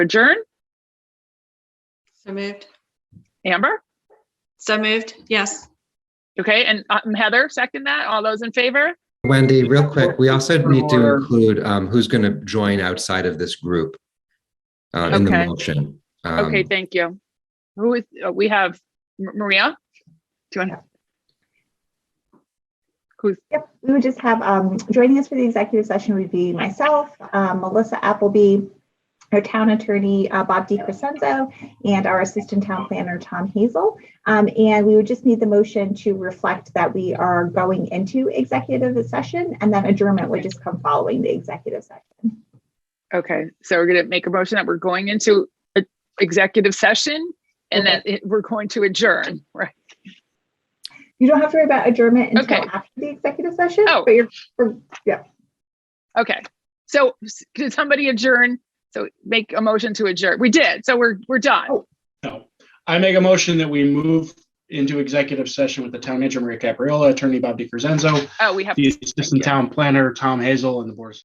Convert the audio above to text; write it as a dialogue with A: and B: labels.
A: adjourn.
B: So moved.
A: Amber?
B: So moved. Yes.
A: Okay, and um, Heather, second that. All those in favor?
C: Wendy, real quick, we also need to
D: Or-
C: include um, who's going to join outside of this group uh, in the
A: Okay.
C: motion. Um,
A: Okay, thank you. Who is, uh, we have M- Maria? Do you want to? Who's,
E: Yep, we would just have, um, joining us for the executive session would be myself, um, Melissa Appleby, our town attorney, uh, Bob DiCrescenzo, and our assistant town planner, Tom Hazel. Um, and we would just need the motion to reflect that we are going into executive session and then adjournment would just come following the executive session.
A: okay, so we're gonna make a motion that we're going into a executive session and that it- we're going to adjourn, right?
E: You don't have to worry about adjournment until
A: Okay.
E: after the executive session,
A: Oh.
E: but you're,
A: Okay, so s- did somebody adjourn? So make a motion to adjourn. We did, so we're, we're done.
D: No. I make a motion that we move into executive session with the town manager, Maria Capriola, attorney Bob DiCrescenzo,
A: Oh, we have.
D: the
A: Thank you.
D: assistant town planner, Tom Hazel, and the board. of